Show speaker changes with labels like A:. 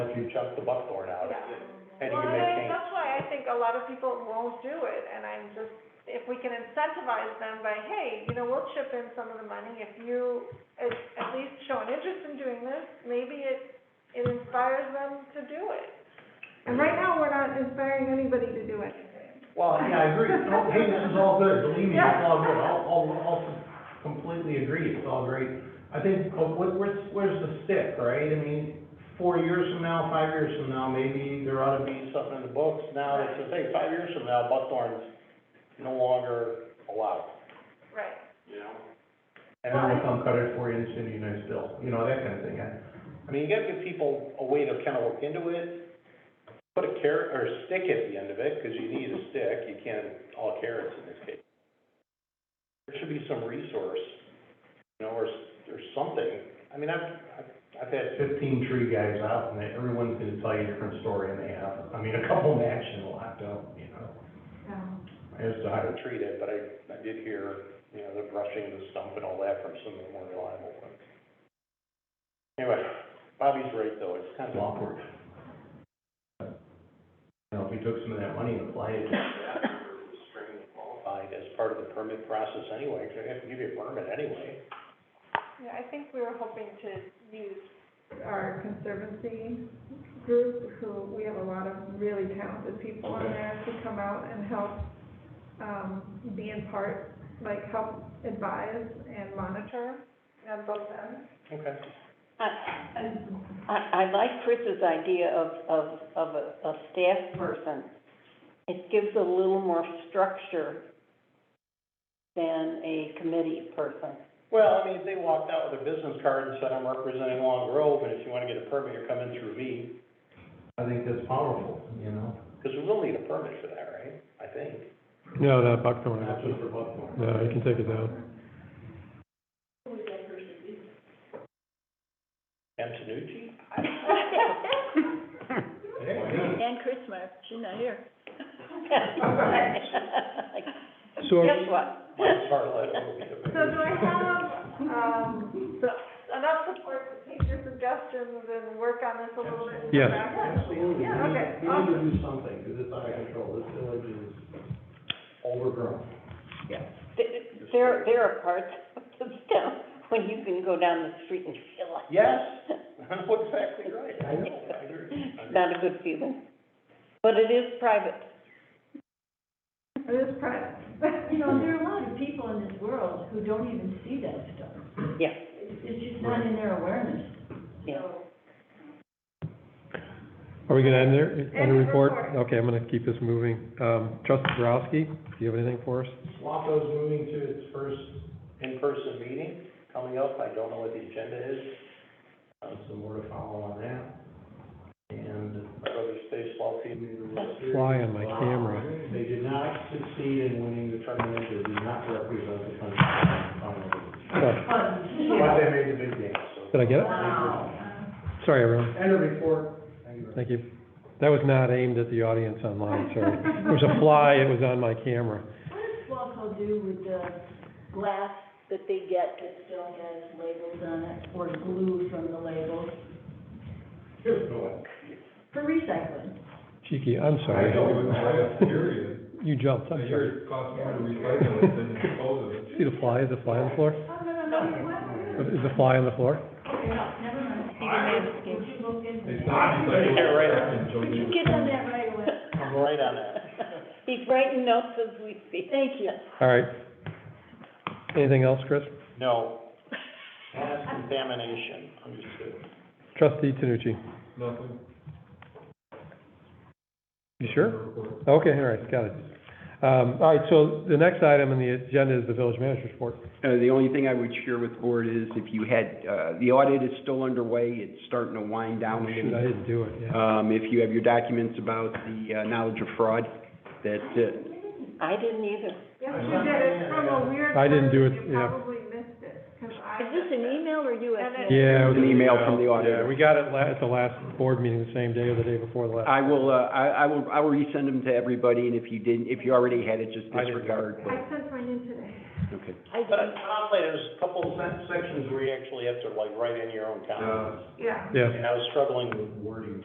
A: chunk the buckthorn out, and you
B: Well,
A: can
B: and
A: make
B: I-
A: change.
B: that's why I think a lot of people won't do it, and I'm just, if we can incentivize them by, hey, you know, we'll chip in some of the money, if you at, at least show an interest in doing this, maybe it, it inspires them to do it. And right now, we're not inspiring anybody to do it.
C: Well, yeah, I agree, No, hey, this is all good, believe me, it's all good, I'll, I'll, I'll completely agree, it's all great. I think, uh, what, where's, where's the stick, right? I mean, four years from now, five years from now, maybe there ought to be something in the books now that says, hey, five years from now, buckthorn's no longer allowed.
B: Right.
C: And then we'll come cut it for you and send you a nice bill, you know, that kind of thing. I-
A: I mean, you gotta give people a way to kind of look into it, put a carrot, or a stick at the end of it, because you need a stick, you can't all carrots in this case. There should be some resource, you know, or, s- or something, I mean, I've, I've, I've had,
C: Fifteen tree guys out, and they- everyone's gonna tell you a different story, and they have, I mean, a couple in action locked up, you know?
D: Um,
C: I just,
A: I
C: I,
A: haven't treated, but I, I did hear, you know, the brushing, the stump and all that from some of the more reliable ones. Anyway, Bobby's right, though, it's kind
C: That's
A: of awkward.
C: awkward. You know, if we took some of that money and applied it, to-
A: qualified as part of the permit process anyway, because they have to give you a permit anyway.
B: Yeah, I think we were hoping to use our conservancy group, who, we have a lot of really talented people in
C: Okay.
B: there to come out and help, um, be in part, like, help advise and monitor on both ends.
A: Okay.
E: I, I like Chris's idea of, of, of a, a staff person. It gives a little more structure than a committee person.
A: Well, I mean, if they walked out with a business card and said, I'm representing Long Grove, and if you want to get a permit, you're coming through me,
C: I think that's powerful, you know?
A: because we will need a permit for that, right? I think.
F: No, that buckthorn,
C: Not just
F: actually.
C: for buckthorn.
F: no, you can take it down.
A: Antonucci?
C: Hey,
D: And Christmas, she's not here.
F: So,
E: Guess what?
A: Mike Sarlet will be the.
B: So do I have, um, so enough support to take your suggestions and work on this a little bit? in the
F: Yes.
B: back?
C: Absolutely, we
B: Yeah, okay,
C: need, we need
G: Um,
C: to do something, because it's out of control, this village is overgrown.
E: Th- There, there are parts of this town when you can go down the street and feel like.
A: Yes, that's exactly right. I know, I agree.
E: It's Not a good feeling, but it is private.
B: It is private.
D: You know, there are a lot of people in this world who don't even see that stuff.
E: Yeah.
D: It's, it's just not in their awareness.
E: Yeah.
F: are we gonna end there, end the
B: End the
F: report?
B: report.
F: Okay, I'm gonna keep this moving. Um, Trustee Borowski, do you have anything for us?
C: Waco's moving to its first,
A: In-person meeting coming up, I don't know what the agenda is,
C: uh, some more to follow on that. And
A: my brother stays small team.
F: Fly on my camera.
C: They did not succeed in winning the tournament, they did not represent the country. in the tournament.
F: Oh,
C: But they made the big game, so.
F: Did I get it? Sorry, everyone,
C: End of report.
F: thank you. That was not aimed at the audience online, sorry. There was a fly, it was on my camera.
D: What does Waco do with the glass that they get that still has labels on it, or glue from the labels,
C: Here's the one.
D: for recycling?
F: Cheeky, I'm
G: I know,
F: sorry.
G: but I am curious.
F: You jumped,
G: I
F: I'm
G: hear
F: sorry.
G: it costs more to recycle it than dispose of it.
F: See the fly, is the fly on the floor?
D: Oh, no, no, no, what?
F: Is the fly on the floor?
D: Okay, no, never mind. Would you look into
G: It's
D: that?
G: not recyclable.
A: Yeah, right.
D: Would you get on that right away?
A: I'm right on that.
E: He's writing notes as we speak.
D: Thank you.
F: All right. Anything else, Chris?
A: No. Mass contamination, understood.
F: Trustee Tanucci,
G: Nothing.
F: you sure?
G: Report.
F: Okay, all right, got it. Um, all right, so the next item on the agenda is the village manager's report.
H: Uh, the only thing I would share with the board is if you had, uh, the audit is still underway, it's starting to wind down. a little
F: Oh, Shoot, I didn't do it, yeah.
H: Um, if you have your documents about the, uh, knowledge of fraud, that's it.
E: I didn't either.
B: Yes, you did, it's from a weird.
F: I didn't do
B: person.
F: it,
B: You
F: yeah.
B: probably missed it, 'cause I.
D: Is this an email or
B: And
D: US?
B: it-
F: Yeah. it was
H: An email from the
F: Yeah,
H: auditor.
F: we got it la, at the last board meeting, the same day or the day before the last.
H: I will, uh, I, I will, I will resend them to everybody, and if you didn't, if you already had it, just
F: I didn't.
H: disregard,
B: I sent mine in today.
H: but, okay.
D: I
A: But
D: didn't.
A: I'll say, there's a couple of sen- sections where you actually have to like write in your own comments.
B: Yeah.
F: Yeah.
A: And I was struggling with
C: Wording.